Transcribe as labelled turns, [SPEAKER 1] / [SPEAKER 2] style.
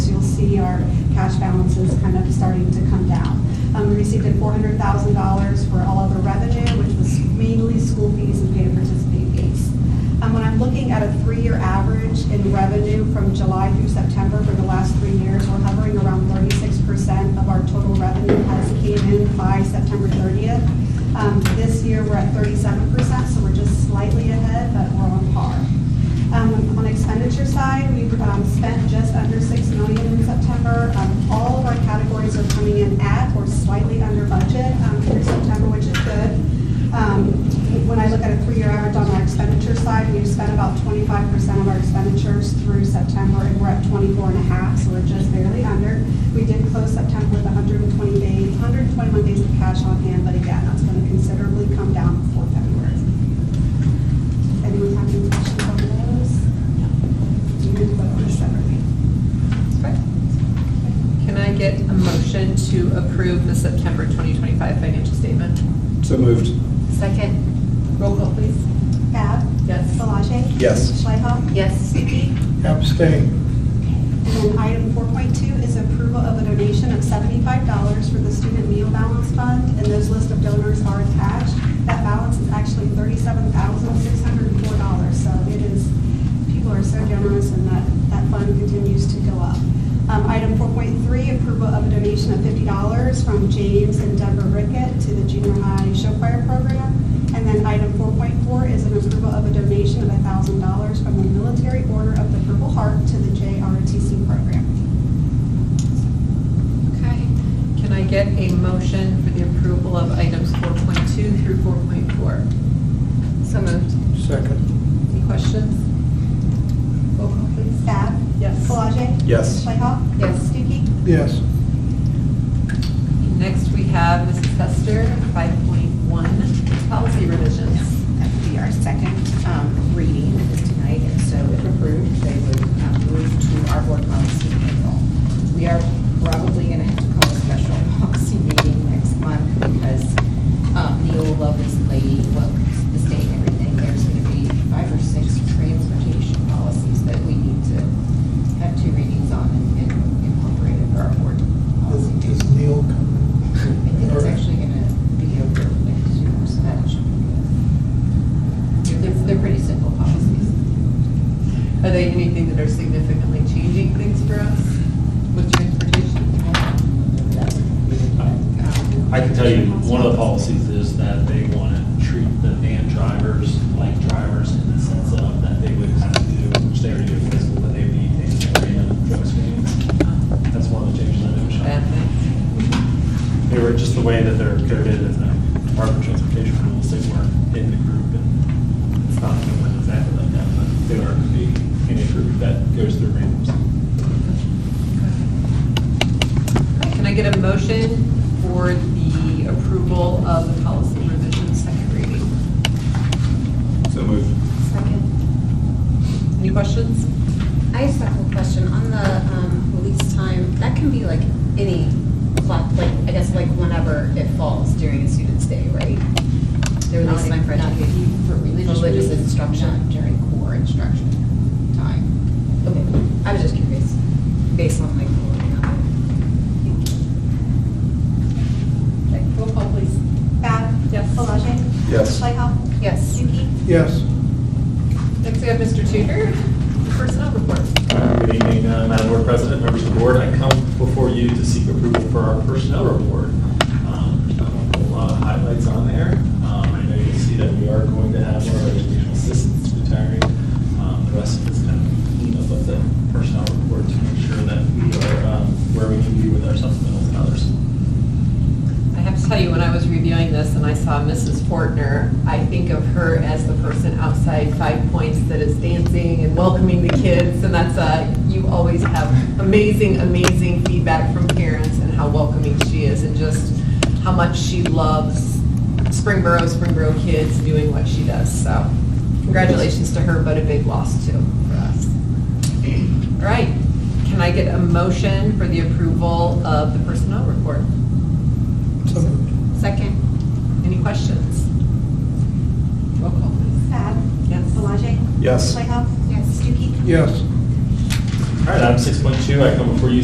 [SPEAKER 1] see our cash balances kind of starting to come down. Um, We received a $400,000 for all other revenue, which was mainly school fees and paid participating fees. Um, When I'm looking at a three-year average in revenue from July through September for the last three years, we're hovering around 36% of our total revenue has came in by September 30th. Um, This year, we're at 37%, so we're just slightly ahead, but we're on par. Um, On expenditure side, we've um, spent just under 6 million in September. Um, All of our categories are coming in at or slightly under budget um, through September, which is good. Um, When I look at a three-year average on our expenditure side, we've spent about 25% of our expenditures through September, and we're at 24 and a half, so we're just barely under. We did close September with 120 days, 121 days of cash on hand, but again, that's going to considerably come down before February. Anyone have any questions on those? You can vote on this separately.
[SPEAKER 2] Can I get a motion to approve the September 2025 financial statement?
[SPEAKER 3] So moved.
[SPEAKER 2] Second. Roll call, please.
[SPEAKER 1] Bab?
[SPEAKER 2] Yes.
[SPEAKER 1] Palage?
[SPEAKER 3] Yes.
[SPEAKER 1] Schleifer?
[SPEAKER 2] Yes.
[SPEAKER 1] Stuckey?
[SPEAKER 3] Abstain.
[SPEAKER 1] And then item 4.2 is approval of a donation of $75 for the Student Meal Balance Fund, and those list of donors are attached. That balance is actually $37,604, so it is, people are so generous, and that, that fund continues to go up. Um, Item 4.3, approval of a donation of $50 from James and Deborah Rickett to the junior high show choir program. And then item 4.4 is an approval of a donation of $1,000 from the Military Order of the Purple Heart to the JRTC program.
[SPEAKER 2] Okay. Can I get a motion for the approval of items 4.2 through 4.4? So moved.
[SPEAKER 3] Second.
[SPEAKER 2] Any questions? Roll call, please.
[SPEAKER 1] Bab?
[SPEAKER 2] Yes.
[SPEAKER 1] Palage?
[SPEAKER 3] Yes.
[SPEAKER 1] Playhouse?
[SPEAKER 2] Yes.
[SPEAKER 1] Stuckey?
[SPEAKER 3] Yes.
[SPEAKER 2] Next, we have Mrs. Hester, 5.1, policy revisions.
[SPEAKER 4] That would be our second um, reading of this tonight, and so if approved, they would um, move to our board policy manual. We are probably going to have to call a special policy meeting next month because um, Neola is lady, well, the state and everything, there's going to be five or six transportation policies that we need to have two readings on and and incorporate into our board policy. manual.
[SPEAKER 3] Neil coming?
[SPEAKER 4] I think it's actually gonna be over next year, so that should be good. They're, they're pretty simple policies.
[SPEAKER 2] Are they anything that are significantly changing things for us with transportation?
[SPEAKER 5] I can tell you, one of the policies is that they want to treat the van drivers like drivers in the sense of that they would have to do, which they already do physical, but they would need to take a random drug screen. That's one of the changes I noticed.
[SPEAKER 2] Bad thing.
[SPEAKER 5] They were, just the way that they're coded in the Department of Transportation rules, they weren't in the group. and It's not that they're exactly like that, but they are to be in a group that goes through randoms.
[SPEAKER 2] Okay, Can I get a motion for the approval of the policy revision second reading?
[SPEAKER 3] So moved.
[SPEAKER 6] Second.
[SPEAKER 2] Any questions?
[SPEAKER 6] I just have a quick question. On the um, release time, that can be like any clock, like, I guess like whenever it falls during a student's day, right? The release time for
[SPEAKER 4] Not
[SPEAKER 6] education.
[SPEAKER 4] even For religious
[SPEAKER 6] Religious
[SPEAKER 4] instruction,
[SPEAKER 6] instruction.
[SPEAKER 4] not during core instruction time.
[SPEAKER 6] Okay, I was just curious, based on like. the wording of it.
[SPEAKER 2] Okay, Roll call, please.
[SPEAKER 1] Bab?
[SPEAKER 2] Yes.
[SPEAKER 1] Palage?
[SPEAKER 3] Yes.
[SPEAKER 1] Playhouse?
[SPEAKER 6] Yes.
[SPEAKER 1] Stuckey?
[SPEAKER 3] Yes.
[SPEAKER 2] Next, we have Mr. Tudor, personnel report.
[SPEAKER 5] Good evening, uh, Madam Board President, members of the board. I come before you to seek approval for our personnel report. Um, A whole lot of highlights on there. Um, I know you'll see that we are going to have our educational assistants retiring. Um, The rest of this kind of cleanup of the personnel report to make sure that we are um, where we need to be with our supplementals and others.
[SPEAKER 2] I have to tell you, when I was reviewing this and I saw Mrs. Fortner, I think of her as the person outside Five Points that is dancing and welcoming the kids, and that's uh you always have amazing, amazing feedback from parents and how welcoming she is, and just how much she loves Springboro, Springboro kids doing what she does, so congratulations to her, but a big loss too for us. All right, can I get a motion for the approval of the personnel report?
[SPEAKER 3] So moved.
[SPEAKER 6] Second.
[SPEAKER 2] Any questions? Roll call, please.
[SPEAKER 1] Bab?
[SPEAKER 2] Yes.
[SPEAKER 1] Palage?
[SPEAKER 3] Yes.
[SPEAKER 1] Playhouse?
[SPEAKER 6] Yes.
[SPEAKER 1] Stuckey?
[SPEAKER 3] Yes.
[SPEAKER 5] All right, item 6.2, I come before you